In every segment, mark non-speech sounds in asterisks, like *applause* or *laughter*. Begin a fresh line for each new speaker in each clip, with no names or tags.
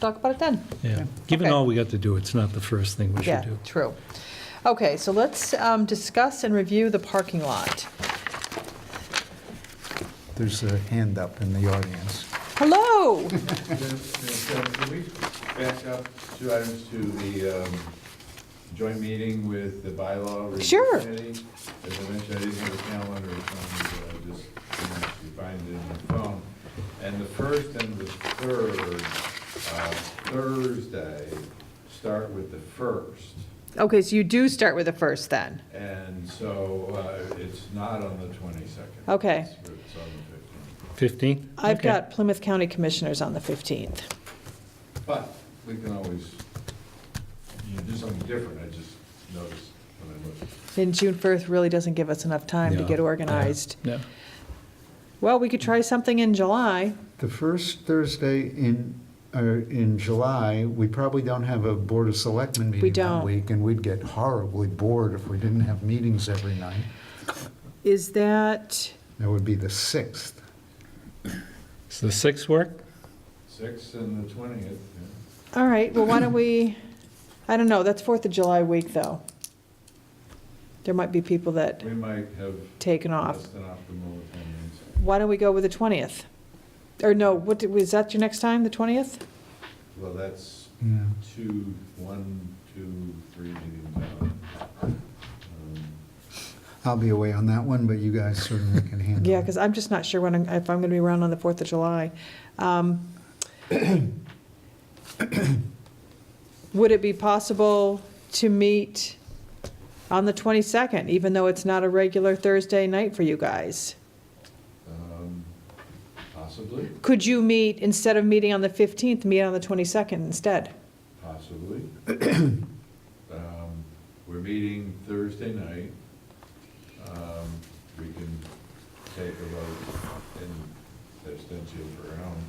talk about it then.
Yeah, given
Okay.
all we got to do, it's not the first thing we should
Yeah,
do.
true. Okay, so let's um, discuss and review the parking lot.
There's a hand up in the audience.
*laughs*
Hello!
Can we back up two items to the um, joint meeting with the bylaw review
Sure.
committee? As I mentioned, I didn't have a calendar, so I just didn't actually find it in my phone. And the first and the third, uh, Thursday, start with the first.
Okay, so you do start with the first then?
And so uh, it's not on the 22nd.
Okay.
It's it's on the 15th.
15?
I've
Okay.
got Plymouth County Commissioners on the 15th.
But we can always, you know, do something different, I just noticed when I looked.
And June 1st really doesn't give us enough time to
Yeah,
get
yeah,
organized.
Yeah,
Well, we could try something in July.
The first Thursday in, or in July, we probably don't have a Board of Selectmen meeting
don't.
that week, and we'd get horribly bored if we didn't have meetings every night.
Is that,
That would be the 6th.
so the 6th work?
Six and the twentieth,
all right, well, why don't we, I don't know, that's 4th of July week, though. There might be people that
we might have
taken off.
less than optimal attendance.
Why don't we go with the 20th? Or no, what, did- was that your next time, the 20th?
Well, that's
Yeah.
two, one, two, three meetings out. Um,
I'll be away on that one, but you guys certainly can handle it.
Yeah, because I'm just not sure when, I'm- if I'm going to be around on the 4th of July. Um, Would it be possible to meet on the 22nd, even though it's not a regular Thursday night for you guys?
um, Possibly,
Could you meet, instead of meeting on the 15th, meet on the 22nd instead?
possibly. Um, We're meeting Thursday night. Um, We can take a vote in abstention for our own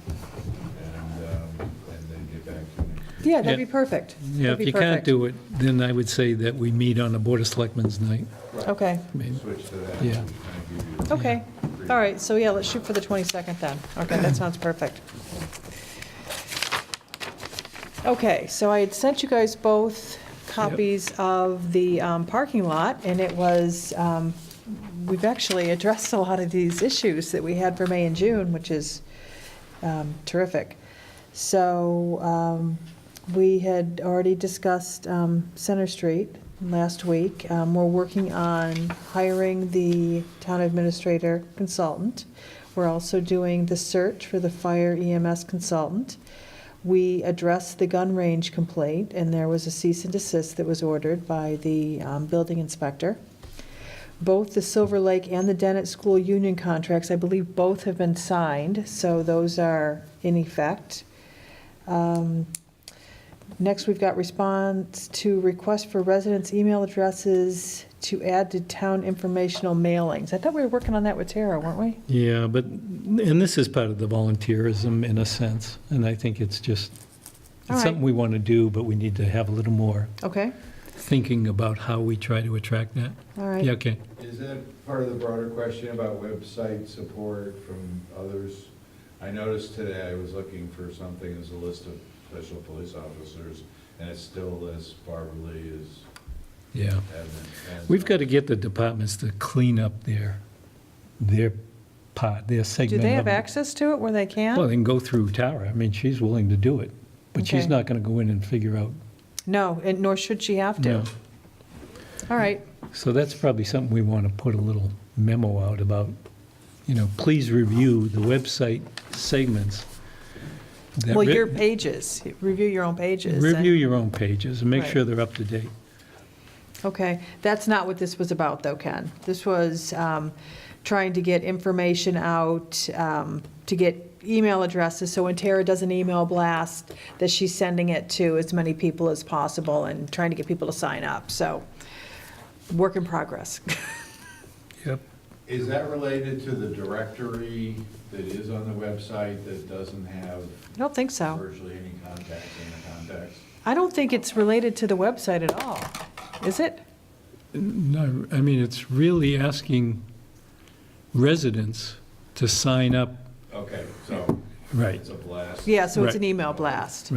and, um, and then get back to next
Yeah, that'd be
Yeah.
perfect.
Yeah,
That'd
if
be
you can't
perfect.
do it, then I would say that we meet on the Board of Selectmen's night.
Right.
Okay,
I mean,
Switch to that.
Yeah.
Kind of give you-
okay. All right, so yeah, let's shoot for the 22nd then. Okay, that sounds perfect. Okay, so I had sent you guys both copies of the um, parking lot, and it was, um, we've actually addressed a lot of these issues that we had for May and June, which is um, terrific. So um, we had already discussed um, Center Street last week. Um, We're working on hiring the town administrator consultant. We're also doing the search for the fire EMS consultant. We addressed the gun range complaint, and there was a cease and desist that was ordered by the um, building inspector. Both the Silver Lake and the Dennett School Union contracts, I believe both have been signed, so those are in effect. Um, Next, we've got response to request for residents' email addresses to add to town informational mailings. I thought we were working on that with Tara, weren't we?
Yeah, but, and this is part of the volunteerism in a sense, and I think it's just,
All
it's
right.
something we want to do, but we need to have a little more
Okay,
thinking about how we try to attract that.
all right.
Yeah, okay.
Is that part of the broader question about website support from others? I noticed today I was looking for something as a list of special police officers, and it's still lists Barbara Lee as
Yeah.
admin. and-
We've got to get the departments to clean up their, their part, their
Do
segment.
they have
of it.
access to it where they
Well,
can?
they can go through Tara. I mean, she's willing to do it, but she's
Okay.
not going to go in and figure out.
No, and nor should she have to.
no.
All right,
So that's probably something we want to put a little memo out about, you know, please review the website segments. that
well,
re-
your pages, review your own pages. and-
Review your own pages and make
Right.
sure they're up to date.
Okay, that's not what this was about, though, Ken. This was um, trying to get information out, um, to get email addresses, so when Tara does an email blast, that she's sending it to as many people as possible and trying to get people to sign up, so, work in progress. *laughs*
Yep.
Is that related to the directory that is on the website that doesn't have
I don't think so.
virtually any contacts in the contacts?
I don't think it's related to the website at all, is it?
No, I mean, it's really asking residents to sign up.
Okay, so
Right.
it's a blast.
Yeah, so it's
Right.
an email blast.